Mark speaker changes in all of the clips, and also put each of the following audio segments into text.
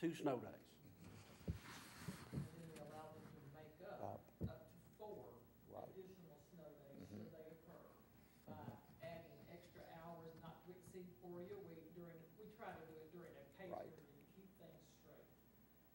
Speaker 1: two snow days.
Speaker 2: And then we allow them to make up, up to four additional snow days should they occur. By adding extra hours not to exceed forty a week during, we try to do it during a pay
Speaker 3: Right.
Speaker 2: period, to keep things straight.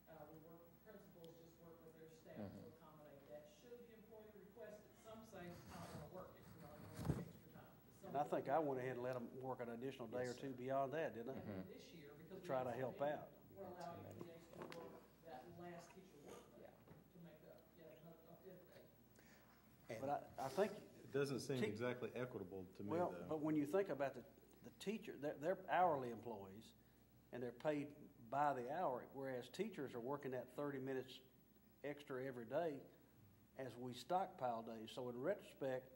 Speaker 2: Uh, we work, principals just work with their staff to accommodate that. Should the employee request it, some say, I don't wanna work it, we're not gonna work extra time. But some
Speaker 1: And I think
Speaker 2: will.
Speaker 1: I went ahead and let them work an additional day or two beyond that, didn't I?
Speaker 2: And this year, because. we
Speaker 1: Try to
Speaker 2: have so
Speaker 1: help
Speaker 2: many,
Speaker 1: out.
Speaker 2: We're allowing EAs to work that last teacher work day to make up, yeah, another, a fifth day.
Speaker 1: But I, I think,
Speaker 4: It doesn't seem
Speaker 1: Ki-
Speaker 4: exactly equitable to me,
Speaker 1: well,
Speaker 4: though.
Speaker 1: but when you think about the, the teacher, they're, they're hourly employees, and they're paid by the hour, whereas teachers are working that thirty minutes extra every day as we stockpile days. So in retrospect,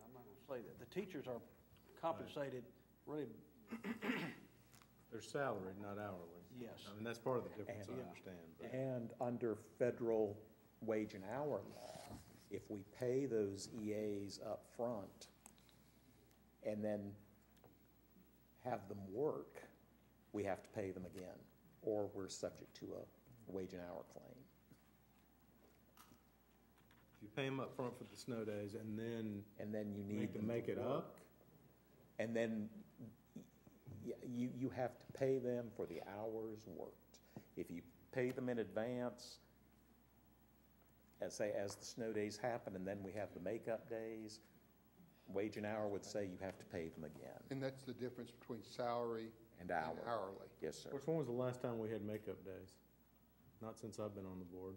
Speaker 1: I'm not gonna say that, the teachers are compensated really,
Speaker 4: They're salaried, not hourly.
Speaker 1: yes.
Speaker 4: I mean, that's part of the difference, I
Speaker 1: Yeah.
Speaker 4: understand. but-
Speaker 3: And under federal wage and hour law, if we pay those EAs up front and then have them work, we have to pay them again, or we're subject to a wage and hour claim.
Speaker 4: If you pay them up front for the snow days and then
Speaker 3: And then you need
Speaker 4: make them
Speaker 3: to
Speaker 4: make it
Speaker 3: work.
Speaker 4: up,
Speaker 3: And then y- you, you have to pay them for the hours worked. If you pay them in advance, as say, as the snow days happen, and then we have the makeup days, wage and hour would say you have to pay them again,
Speaker 5: And that's the difference between salary
Speaker 3: and
Speaker 5: and
Speaker 3: hour.
Speaker 5: hourly.
Speaker 3: Yes, sir.
Speaker 4: which when was the last time we had makeup days? Not since I've been on the board.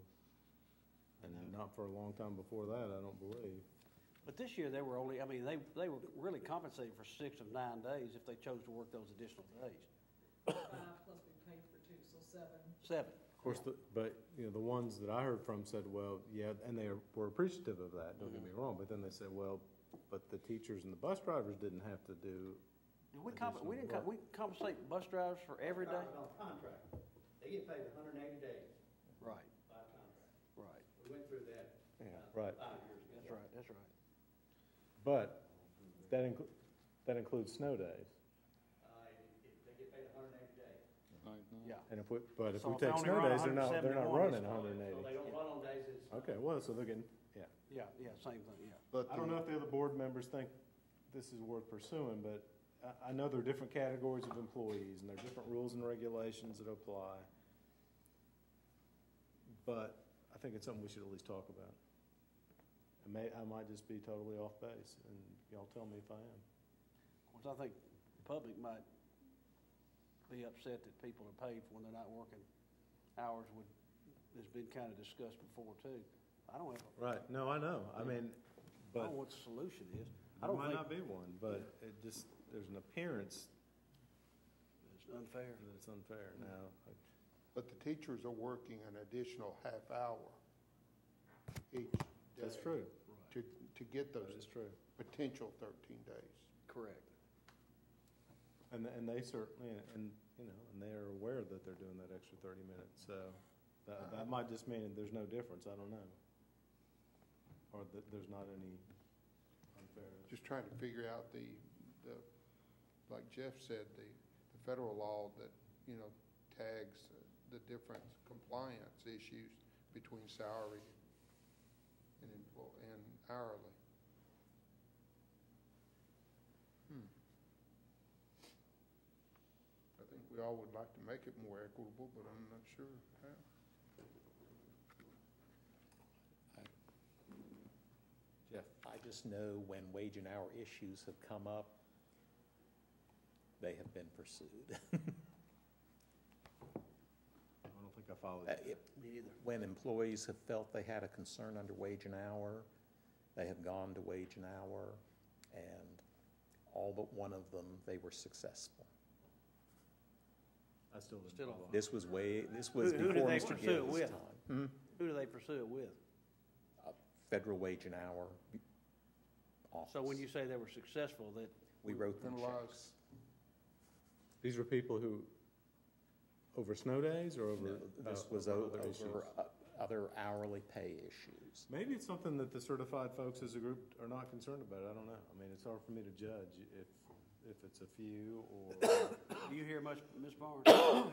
Speaker 4: And not for a long time before that, I don't believe.
Speaker 1: But this year, they were only, I mean, they, they were really compensated for six of nine days if they chose to work those additional days.
Speaker 2: Five plus we paid for two, so seven.
Speaker 1: Seven.
Speaker 4: Of course, the- but, you know, the ones that I heard from said, well, yeah, and they were appreciative of that, don't get me wrong, but then they said, well, but the teachers and the bus drivers didn't have to do,
Speaker 1: Did we comp, we didn't, comp- we compensate bus drivers for every day?
Speaker 6: Drivers on contract, they get paid hundred and eighty days
Speaker 1: Right,
Speaker 6: by contract.
Speaker 1: right.
Speaker 6: We went through that uh,
Speaker 4: right.
Speaker 6: five years ago.
Speaker 1: That's right, that's right.
Speaker 4: But that inclu- that includes snow days.
Speaker 6: Uh, it- it- they get paid hundred and eighty days.
Speaker 1: Yeah.
Speaker 4: And if we, but if
Speaker 1: So
Speaker 4: we
Speaker 1: if they
Speaker 4: take
Speaker 1: only
Speaker 4: snow
Speaker 1: run
Speaker 4: days, they're not, they're not
Speaker 1: 171,
Speaker 4: running hundred and
Speaker 6: So they
Speaker 4: eighty.
Speaker 6: don't run on days that's.
Speaker 4: Okay, well, so they're getting, yeah.
Speaker 1: Yeah, yeah, same thing, yeah.
Speaker 5: But
Speaker 4: I don't know if the other board members think this is worth pursuing, but I, I know there are different categories of employees and there are different rules and regulations that apply. But I think it's something we should at least talk about. I may, I might just be totally off base and y'all tell me if I am.
Speaker 1: Of course, I think the public might be upset that people are paid for when they're not working hours would, has been kind of discussed before too. I don't have, a-
Speaker 4: Right, no, I know, I mean,
Speaker 1: I don't know what the solution is. I
Speaker 4: There
Speaker 1: don't
Speaker 4: might
Speaker 1: think
Speaker 4: not be one, but it just, there's an appearance
Speaker 1: it's unfair.
Speaker 4: that it's unfair now.
Speaker 5: But the teachers are working an additional half hour each day.
Speaker 4: That's true,
Speaker 5: To, to get
Speaker 4: that is
Speaker 5: those
Speaker 4: true.
Speaker 5: potential thirteen days.
Speaker 1: Correct.
Speaker 4: And, and they certainly, and, you know, and they're aware that they're doing that extra thirty minutes, so that,
Speaker 3: Uh-huh.
Speaker 4: that might just mean there's no difference, I don't know. Or that there's not any unfair.
Speaker 5: Just trying to figure out the, the, like Jeff said, the, the federal law that, you know, tags the different compliance issues between salary and employ, and hourly. Hmm. I think we all would like to make it more equitable, but I'm not sure how.
Speaker 4: Jeff?
Speaker 3: I just know when wage and hour issues have come up, they have been pursued.
Speaker 4: I don't think I followed
Speaker 3: Uh,
Speaker 4: you.
Speaker 3: it-
Speaker 1: Me either.
Speaker 3: when employees have felt they had a concern under wage and hour, they have gone to wage and hour, and all but one of them, they were successful.
Speaker 4: I still didn't
Speaker 1: Still
Speaker 4: follow.
Speaker 3: This was way, this was
Speaker 1: Who- who did
Speaker 3: before
Speaker 1: they
Speaker 3: Mr.
Speaker 1: pursue it
Speaker 3: Gill's
Speaker 1: with?
Speaker 3: time.
Speaker 1: Who do they pursue it with?
Speaker 3: Uh, Federal wage and hour office.
Speaker 1: So when you say they were successful, that,
Speaker 3: We wrote them
Speaker 5: Penalize.
Speaker 3: checks.
Speaker 4: These were people who, over snow days or over?
Speaker 3: No, This
Speaker 4: uh,
Speaker 3: was
Speaker 4: over
Speaker 3: o-
Speaker 4: other issues?
Speaker 3: over uh, other hourly pay issues.
Speaker 4: Maybe it's something that the certified folks as a group are not concerned about, I don't know. I mean, it's hard for me to judge if, if it's a few or,
Speaker 1: do you hear much, Ms. Barnes?